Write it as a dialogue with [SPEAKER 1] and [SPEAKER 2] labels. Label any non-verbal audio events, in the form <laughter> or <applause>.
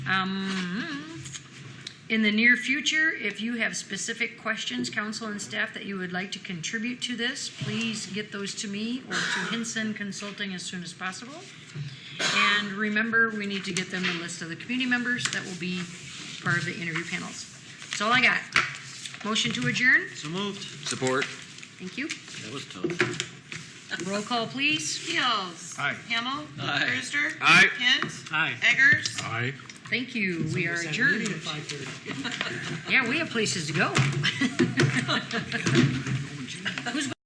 [SPEAKER 1] Um, In the near future, if you have specific questions, council and staff, that you would like to contribute to this, please get those to me or to Hinson Consulting as soon as possible. And remember, we need to get them the list of the community members that will be part of the interview panels. That's all I got. Motion to adjourn?
[SPEAKER 2] So moved.
[SPEAKER 3] Support.
[SPEAKER 1] Thank you.
[SPEAKER 2] That was tough.
[SPEAKER 1] Roll call, please.
[SPEAKER 4] Fields.
[SPEAKER 5] Aye.
[SPEAKER 4] Hamel.
[SPEAKER 2] Aye.
[SPEAKER 4] Brewster.
[SPEAKER 3] Aye.
[SPEAKER 4] Kent.
[SPEAKER 2] Aye.
[SPEAKER 4] Eggers.
[SPEAKER 5] Aye.
[SPEAKER 1] Thank you. We are adjourned. <laughs> Yeah, we have places to go.